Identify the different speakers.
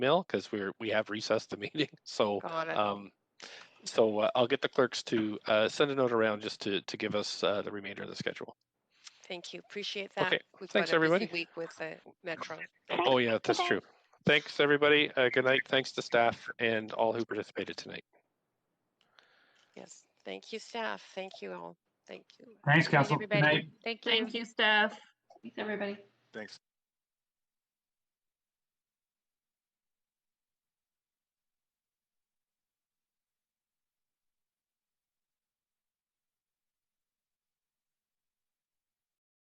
Speaker 1: mail because we're we have recessed the meeting. So
Speaker 2: Got it.
Speaker 1: um, so uh, I'll get the clerks to uh, send a note around just to to give us uh, the remainder of the schedule.
Speaker 2: Thank you. Appreciate that.
Speaker 1: okay.
Speaker 2: We've
Speaker 1: Thanks,
Speaker 2: got a busy
Speaker 1: everybody.
Speaker 2: week with the Metro.
Speaker 1: Oh yeah, that's true. Thanks everybody. Uh, good night. Thanks to staff and all who participated tonight.
Speaker 2: Yes. Thank you, staff. Thank you all. Thank you.
Speaker 3: Thanks,
Speaker 2: Good night,
Speaker 3: Council. Good
Speaker 2: everybody.
Speaker 3: night.
Speaker 4: Thank you.
Speaker 5: Thank you, staff. Thanks, everybody.
Speaker 6: Thanks.